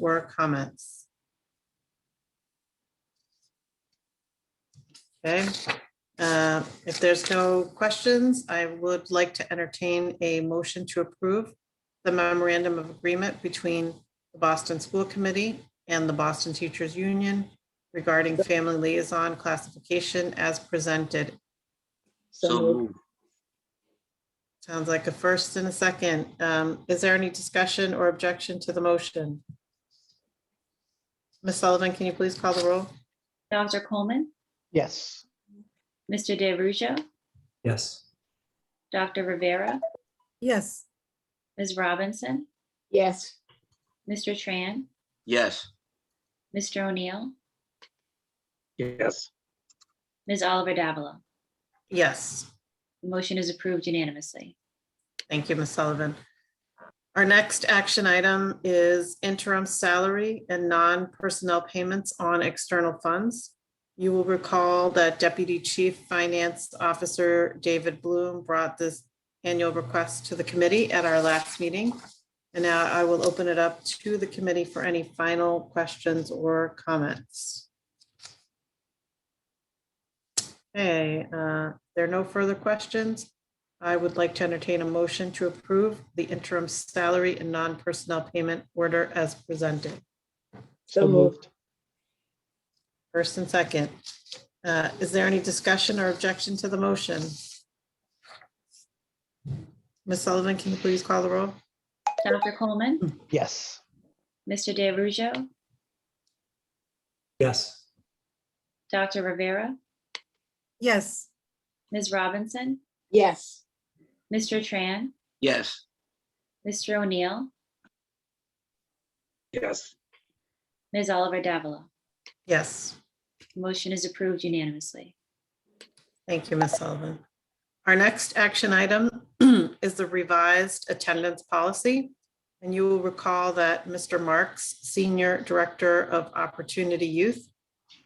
or comments? Okay, uh, if there's no questions, I would like to entertain a motion to approve the memorandum of agreement between the Boston School Committee and the Boston Teachers Union regarding family liaison classification as presented. So moved. Sounds like a first and a second. Um, Is there any discussion or objection to the motion? Ms. Sullivan, can you please call the roll? Dr. Coleman, Yes. Mr. DeRusso, Yes. Dr. Rivera, yes, Ms. Robinson, yes, Mr. Tran, Yes. Mr. O'Neill, Yes. Ms. Oliver Davila. Yes, The motion is approved unanimously. thank you, Ms. Sullivan. Our next action item is interim salary and non-personnel payments on external funds. You will recall that Deputy Chief Finance Officer David Bloom brought this annual request to the committee at our last meeting. And now I will open it up to the committee for any final questions or comments. Okay, uh, there are no further questions. I would like to entertain a motion to approve the interim salary and non-personnel payment order as presented. so moved, First and second. Uh, Is there any discussion or objection to the motion? Ms. Sullivan, can you please call the roll? Dr. Coleman, Yes. Mr. DeRusso, Yes. Dr. Rivera, yes, Ms. Robinson, yes, Mr. Tran, Yes. Mr. O'Neill, Yes. Ms. Oliver Davila. Yes, The motion is approved unanimously. thank you, Ms. Sullivan. Our next action item is the revised attendance policy. And you will recall that Mr. Marks, Senior Director of Opportunity Youth,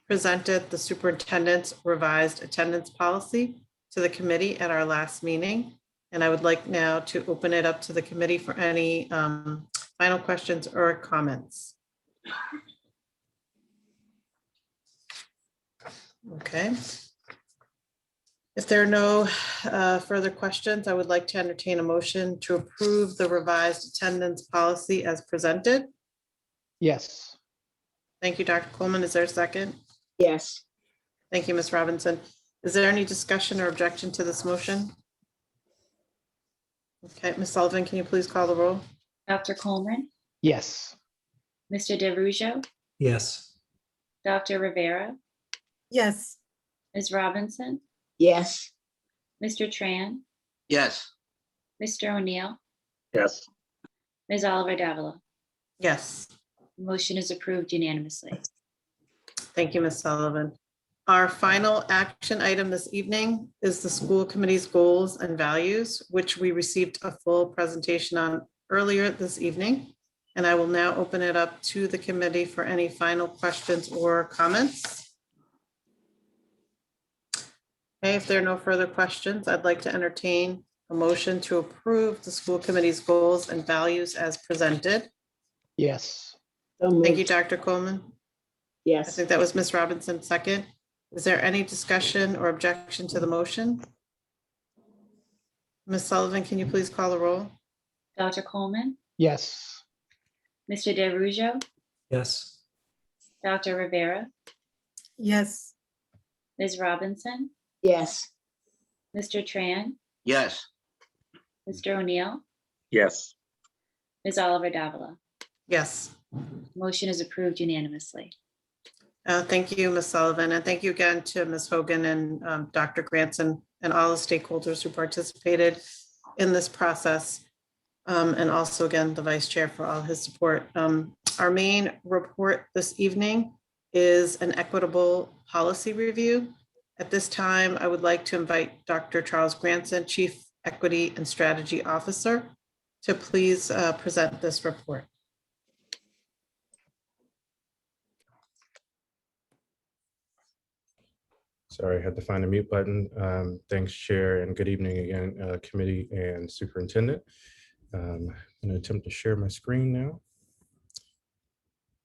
presented the superintendent's revised attendance policy to the committee at our last meeting. And I would like now to open it up to the committee for any um, final questions or comments. Okay. If there are no uh, further questions, I would like to entertain a motion to approve the revised attendance policy as presented. Yes. Thank you, Dr. Coleman. Is there a second? yes, Thank you, Ms. Robinson. Is there any discussion or objection to this motion? Okay, Ms. Sullivan, can you please call the roll? Dr. Coleman, Yes. Mr. DeRusso, Yes. Dr. Rivera, yes, Ms. Robinson, yes, Mr. Tran, Yes. Mr. O'Neill, Yes. Ms. Oliver Davila. Yes, The Motion is approved unanimously. thank you, Ms. Sullivan. Our final action item this evening is the school committee's goals and values, which we received a full presentation on earlier this evening. And I will now open it up to the committee for any final questions or comments. Okay, if there are no further questions, I'd like to entertain a motion to approve the school committee's goals and values as presented. Yes. so Thank you, moved, Dr. Coleman. I yes, think that was Ms. Robinson second. Is there any discussion or objection to the motion? Ms. Sullivan, can you please call the roll? Dr. Coleman, Yes. Mr. DeRusso, Yes. Dr. Rivera, yes, Ms. Robinson, yes, Mr. Tran, Yes. Mr. O'Neill, Yes. Ms. Oliver Davila. Yes, Motion is approved unanimously. Uh, thank you, Ms. Sullivan, and thank you again to Ms. Hogan and um, Dr. Granson and all the stakeholders who participated in this process. Um, And also again, the vice chair for all his support. Um, Our main report this evening is an equitable policy review. At this time, I would like to invite Dr. Charles Granson, Chief Equity and Strategy Officer, to please uh, present this report. Sorry, I had to find a mute button. Um, Thanks, Chair, and good evening again, uh, Committee and Superintendent. Um, I'm going to attempt to share my screen now.